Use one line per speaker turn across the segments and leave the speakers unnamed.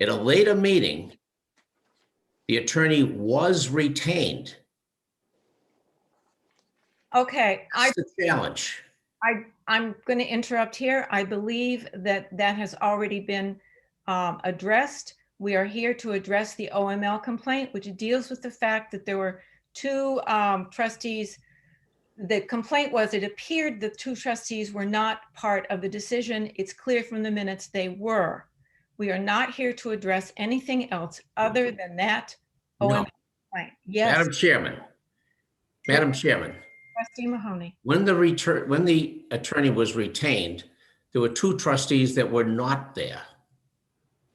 At a later meeting, the attorney was retained.
Okay, I,
That's the challenge.
I'm going to interrupt here. I believe that that has already been um, addressed. We are here to address the OML complaint, which deals with the fact that there were two um, trustees. The complaint was it appeared the two trustees were not part of the decision. It's clear from the minutes they were. We are not here to address anything else other than that
No.
OML complaint. Oh, Yes,
Madam Chairman, Madam Chairman,
trustee Mahoney.
when the return, when the attorney was retained, there were two trustees that were not there.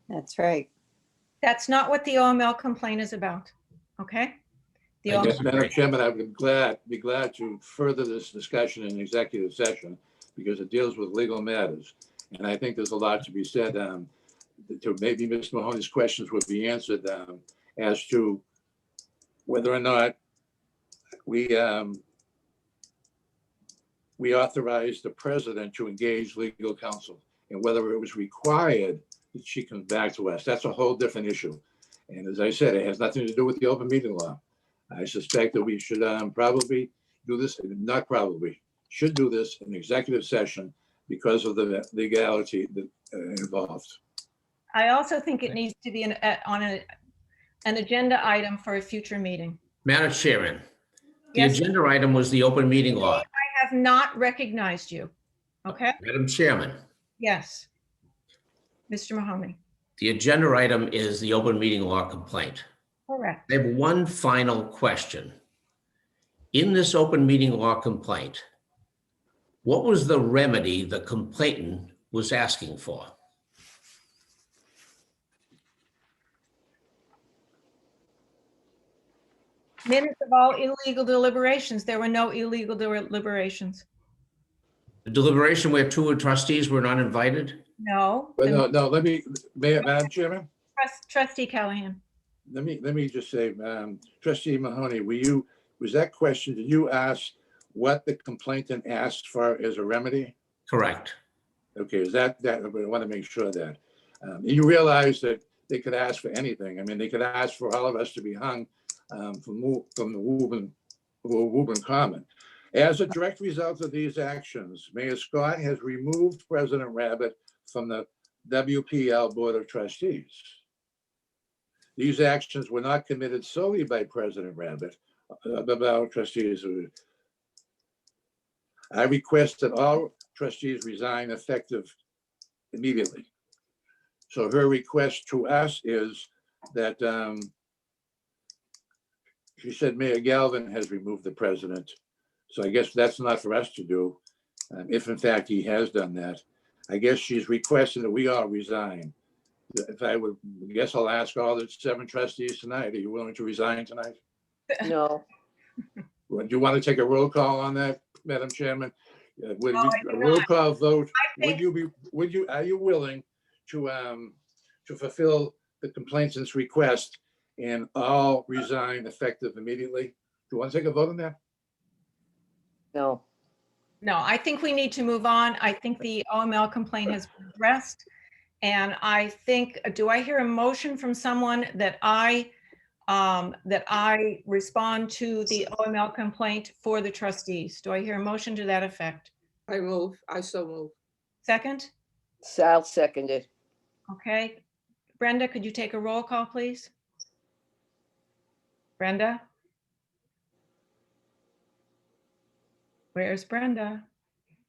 That's right.
That's not what the OML complaint is about, okay? The
I
OML
guess-
Yes, Madam Chairman, I would glad, be glad to further this discussion in executive session because it deals with legal matters. And I think there's a lot to be said, um, to maybe Mr. Mahoney's questions would be answered, um, as to whether or not we, um, we authorized the president to engage legal counsel and whether it was required that she comes back to us. That's a whole different issue. And as I said, it has nothing to do with the open meeting law. I suspect that we should um, probably do this, not probably, should do this in executive session because of the legality that uh, involved.
I also think it needs to be an, a- on a, an agenda item for a future meeting.
Madam Chairman, the
Yes,
agenda item was the open meeting law.
I have not recognized you. Okay,
Madam Chairman,
yes. Mr. Mahoney,
the agenda item is the open meeting law complaint.
correct.
I have one final question. In this open meeting law complaint, what was the remedy the complainant was asking for?
Minutes of all illegal deliberations. There were no illegal deliberations.
The deliberation where two trustees were not invited?
No.
But
uh,
no, no, let me, Mayor- Madam Chairman,
Trust- Trustee Callahan,
let me, let me just say, um, trustee Mahoney, were you, was that question, did you ask what the complainant asked for as a remedy?
Correct.
Okay, is that, that, I want to make sure that. um, You realize that they could ask for anything. I mean, they could ask for all of us to be hung um, from, Wo- from the Woburn, Wo- Woburn Common. As a direct result of these actions, Mayor Scott has removed President Rabbit from the WPL Board of Trustees. These actions were not committed solely by President Rabbit, uh, but by our trustees. I request that all trustees resign effective immediately. So her request to us is that um, she said Mayor Galvin has removed the president. So I guess that's not for us to do, um, if in fact he has done that. I guess she's requesting that we all resign. If I would, I guess I'll ask all the seven trustees tonight, are you willing to resign tonight?
No,
Do you want to take a roll call on that, Madam Chairman? Uh, Would
No,
you-
I do
a roll
not.
call vote,
think-
would you be, would you, are you willing to, um, to fulfill the complainant's request and all resign effective immediately? Do you want to take a vote on that?
no.
no, I think we need to move on. I think the OML complaint has been addressed. And I think, do I hear a motion from someone that I, um, that I respond to the OML complaint for the trustees? Do I hear a motion to that effect?
I move, I so move.
Second?
Sal seconded.
Okay. Brenda, could you take a roll call, please? Brenda? Where's Brenda?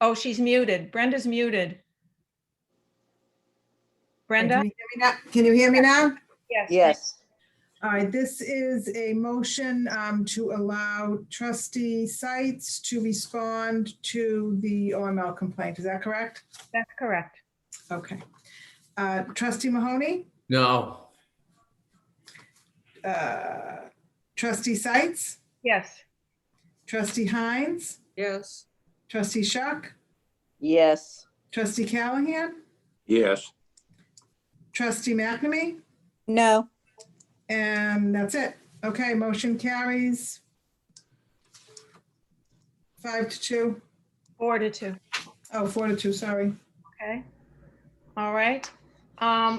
Oh, she's muted. Brenda's muted. Brenda?
Can you hear me now? Can you hear me now?
Yes,
All right, this is a motion um, to allow trustee sites to respond to the OML complaint. Is that correct?
That's correct.
Okay. Uh, Trustee Mahoney,
No,
uh, trustee sites,
Yes.
trustee Hines,
Yes,
trustee Shuck,
yes,
trustee Callahan,
Yes.
trustee McNamee,
No,
and that's it. Okay, motion carries. Five to two.
Four to two.
Oh, four to two, sorry.
Okay. All right. Um,